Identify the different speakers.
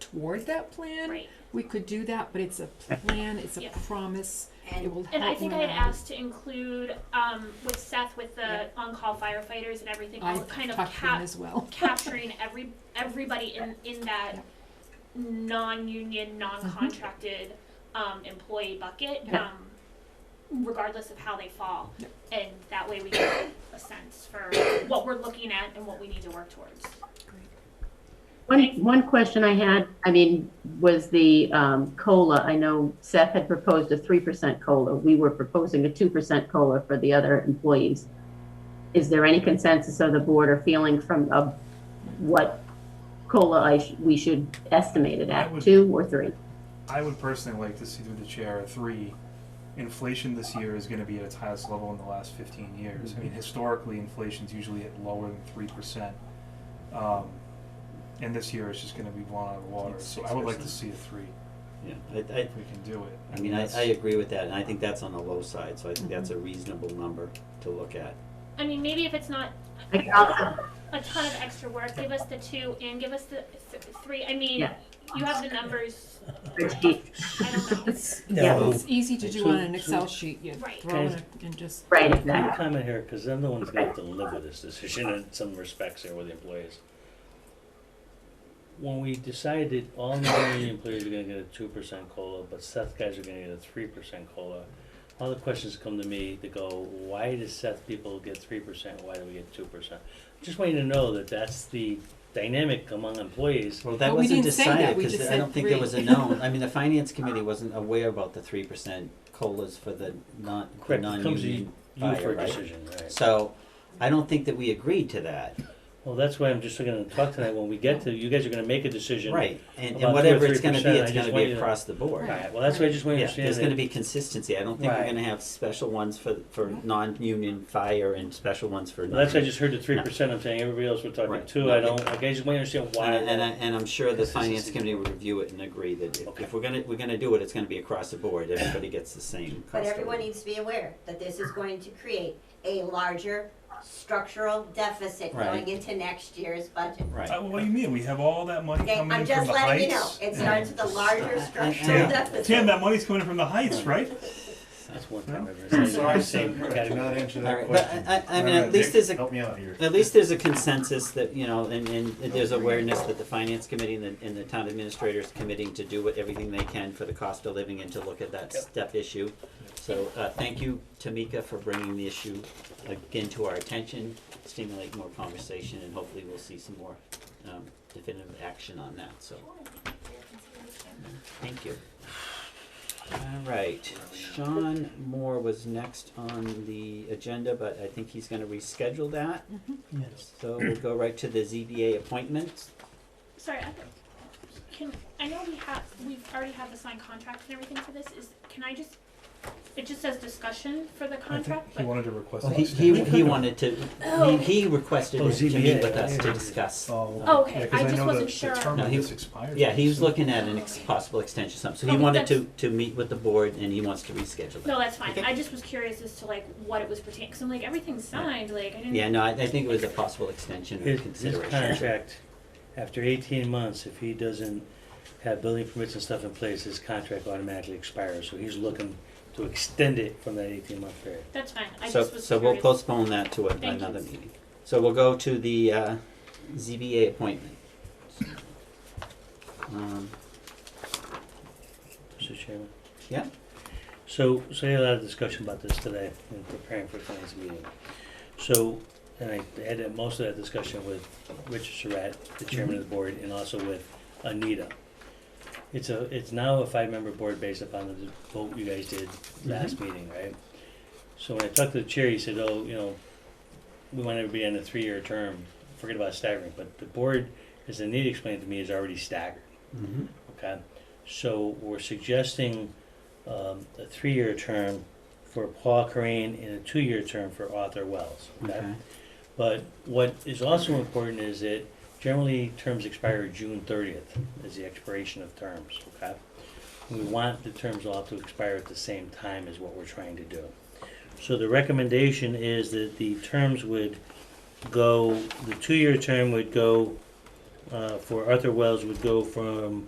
Speaker 1: toward that plan,
Speaker 2: Right.
Speaker 1: we could do that, but it's a plan, it's a
Speaker 2: Yeah.
Speaker 1: promise,
Speaker 3: And-
Speaker 1: it will help.
Speaker 2: And I think I had
Speaker 1: morale.
Speaker 2: asked to include, um, with Seth, with the on-call firefighters and everything, all
Speaker 1: I've
Speaker 2: kind of
Speaker 1: talked to them
Speaker 2: cap,
Speaker 1: as well.
Speaker 2: capturing every, everybody in, in that
Speaker 1: Yeah.
Speaker 2: non-union, non-contracted, um, employee bucket,
Speaker 1: Mm-hmm. Yeah.
Speaker 2: um, regardless of how they fall.
Speaker 1: Yeah.
Speaker 2: And that way we get a sense for what we're looking at and what we need to work towards.
Speaker 4: One, one question I had, I mean, was the um, COLA. I know Seth had proposed a 3% COLA. We were proposing a 2% COLA for the other employees. Is there any consensus of the board or feeling from uh, what COLA I sh- we should estimate it
Speaker 5: I
Speaker 4: at,
Speaker 5: would-
Speaker 4: two or three?
Speaker 5: I would personally like to see through the chair a three. Inflation this year is going to be at its highest level in the last 15 years. I mean, historically, inflation's usually at lower than three percent, um, and this year it's just going to be blown out of the water.
Speaker 6: It's
Speaker 5: So I would like to
Speaker 6: 6%.
Speaker 5: see a three
Speaker 6: Yeah, I, I,
Speaker 5: if we can do it.
Speaker 6: I mean, I,
Speaker 5: that's-
Speaker 6: I agree with that, and I think that's on the low side, so I think that's a
Speaker 1: Mm-hmm.
Speaker 6: reasonable number to look at.
Speaker 2: I mean, maybe if it's not
Speaker 4: I can also,
Speaker 2: a ton of extra work. Give us the two and give us the th- three. I mean,
Speaker 4: Yeah.
Speaker 2: you have the numbers.
Speaker 4: spreadsheet.
Speaker 2: I don't know.
Speaker 1: It's,
Speaker 4: Yeah.
Speaker 1: it's easy to do on an Excel sheet, you
Speaker 2: Right.
Speaker 1: throw it and just.
Speaker 4: right,
Speaker 7: Let me
Speaker 4: exactly.
Speaker 7: comment here, because I'm the one's gonna have to live with this decision in some respects here with the employees. When we decided all non-union employees are gonna get a two percent COLA, but Seth guys are gonna get a three percent COLA, all the questions come to me to go, why does Seth people get three percent, why do we get two percent? Just want you to know that that's the dynamic among employees.
Speaker 6: Well, that
Speaker 1: But we
Speaker 6: wasn't
Speaker 1: didn't say that,
Speaker 6: decided,
Speaker 1: we
Speaker 6: because
Speaker 1: just
Speaker 6: I
Speaker 1: said
Speaker 6: don't think there
Speaker 1: three.
Speaker 6: was a known, I mean, the finance committee wasn't aware about the three percent COLAs for the non, the
Speaker 7: Correct, it comes to you
Speaker 6: non-union
Speaker 7: you for
Speaker 6: fire,
Speaker 7: a
Speaker 6: right?
Speaker 7: decision, right?
Speaker 6: So, I don't think that we agreed to that,
Speaker 7: Well, that's why I'm just gonna talk tonight, when we get to, you guys are gonna make a decision.
Speaker 6: right, and,
Speaker 7: About two or
Speaker 6: and whatever it's gonna be,
Speaker 7: 3%, I
Speaker 6: it's
Speaker 7: just
Speaker 6: gonna
Speaker 7: want
Speaker 6: be
Speaker 7: you to-
Speaker 6: across the board.
Speaker 7: Alright, well, that's why I just want you
Speaker 6: Yeah,
Speaker 7: to understand
Speaker 6: there's
Speaker 7: that.
Speaker 6: gonna be consistency, I don't think we're
Speaker 7: Right.
Speaker 6: gonna have special ones for, for
Speaker 1: Right.
Speaker 6: non-union fire and special ones for non.
Speaker 7: Well, that's, I just heard the three percent, I'm saying everybody else we're talking
Speaker 6: Right.
Speaker 7: two, I don't, okay, I just want to understand why.
Speaker 6: And, and, I, and I'm sure the finance
Speaker 7: Consistency.
Speaker 6: committee would review it and agree that if,
Speaker 7: Okay.
Speaker 6: if we're gonna, we're gonna do it, it's gonna be across the board, everybody gets the same cost.
Speaker 3: But
Speaker 6: of
Speaker 3: everyone e-
Speaker 6: living.
Speaker 3: needs to be aware that this is going to create a larger structural deficit
Speaker 6: Right.
Speaker 3: going into next year's budget.
Speaker 5: Uh,
Speaker 6: Right.
Speaker 5: what do you mean? We have all that money
Speaker 3: Okay,
Speaker 5: coming
Speaker 3: I'm
Speaker 5: in from
Speaker 3: just
Speaker 5: the
Speaker 3: letting you know,
Speaker 5: heights.
Speaker 3: it starts with a larger
Speaker 6: Yeah.
Speaker 3: structural
Speaker 6: Yeah.
Speaker 3: deficit.
Speaker 5: Tim, that money's coming from the heights, right?
Speaker 7: That's one time I've ever
Speaker 8: I'm
Speaker 7: seen
Speaker 8: sorry,
Speaker 7: the same
Speaker 8: Senator, I
Speaker 7: category.
Speaker 8: cannot answer
Speaker 6: All
Speaker 8: that
Speaker 6: right, but
Speaker 8: question.
Speaker 6: I- I- I mean,
Speaker 8: Alright,
Speaker 6: at least
Speaker 8: Dick,
Speaker 6: there's a-
Speaker 8: Help me out here.
Speaker 6: At least there's a consensus that, you know, and, and there's awareness that the finance committee and the, and the town administrators committing to do what, everything they can for the cost of living and to look at that
Speaker 7: Yep.
Speaker 6: step issue. So, uh, thank you, Tamika, for bringing the issue again to our attention, stimulate more conversation, and hopefully we'll see some more, um, definitive action on that, so. Thank you. All right, Sean Moore was next on the agenda, but I think he's gonna reschedule that. So we'll go right to the ZBA appointments.
Speaker 2: Sorry, I thought- can I know we have we've already had the signed contract and everything for this. Is can I just it just says discussion for the
Speaker 5: I think
Speaker 2: contract,
Speaker 5: he
Speaker 2: but
Speaker 5: wanted to request.
Speaker 6: Well,
Speaker 5: an
Speaker 6: he, he,
Speaker 5: extension.
Speaker 6: he wanted to,
Speaker 2: Oh.
Speaker 6: he, he requested
Speaker 7: Oh,
Speaker 6: to
Speaker 7: ZBA,
Speaker 6: meet with us
Speaker 7: yeah,
Speaker 6: to
Speaker 7: yeah.
Speaker 6: discuss.
Speaker 5: Oh,
Speaker 2: Oh, okay.
Speaker 5: yeah, 'cause
Speaker 2: I just
Speaker 5: know
Speaker 2: wasn't
Speaker 5: the-
Speaker 2: sure.
Speaker 5: The term
Speaker 6: No,
Speaker 5: of
Speaker 6: he-
Speaker 5: this expires.
Speaker 6: Yeah, he was
Speaker 5: soon.
Speaker 6: looking at an ex- possible extension, or something, so
Speaker 2: Oh,
Speaker 6: he
Speaker 2: but
Speaker 6: wanted to,
Speaker 2: that's-
Speaker 6: to meet with the board and he wants to reschedule that.
Speaker 2: no, that's fine.
Speaker 6: Okay.
Speaker 2: I just was curious as to like what it was pertaining because I'm like everything's signed. Like I didn't.
Speaker 6: Yeah, no, I, I think it was a possible extension of
Speaker 7: His, his
Speaker 6: consideration.
Speaker 7: contract, after eighteen months, if he doesn't have building permits and stuff in place, his contract automatically expires, so he's looking to extend it from that eighteen month period.
Speaker 2: That's fine. I
Speaker 6: So,
Speaker 2: just was
Speaker 6: so we'll
Speaker 2: curious.
Speaker 6: postpone that to a-
Speaker 2: Thank you.
Speaker 6: another meeting. So we'll go to the, uh, ZBA appointment. Um,
Speaker 7: Mr. Chairman?
Speaker 6: Yeah.
Speaker 7: So, so we had a lot of discussion about this today in preparing for tonight's meeting. So, and I had that- most of that discussion with Richard Surratt, the chairman of the board, and also with Anita. It's a, it's now a five-member board based upon the vote you guys did last meeting, right? So when I talked to the chair, he said, oh, you know, we want everybody on a three-year term, forget about staggering, but the board, as Anita explained to me, is already staggered.
Speaker 6: mhm.
Speaker 7: Okay, so we're suggesting um, a three-year term for Paul Corain and a two-year term for Arthur Wells.
Speaker 6: Okay.
Speaker 7: But what is also important is that generally terms expire June thirtieth is the expiration of terms, okay? We want the terms all to expire at the same time is what we're trying to do. So the recommendation is that the terms would go, the two-year term would go, uh, for Arthur Wells would go from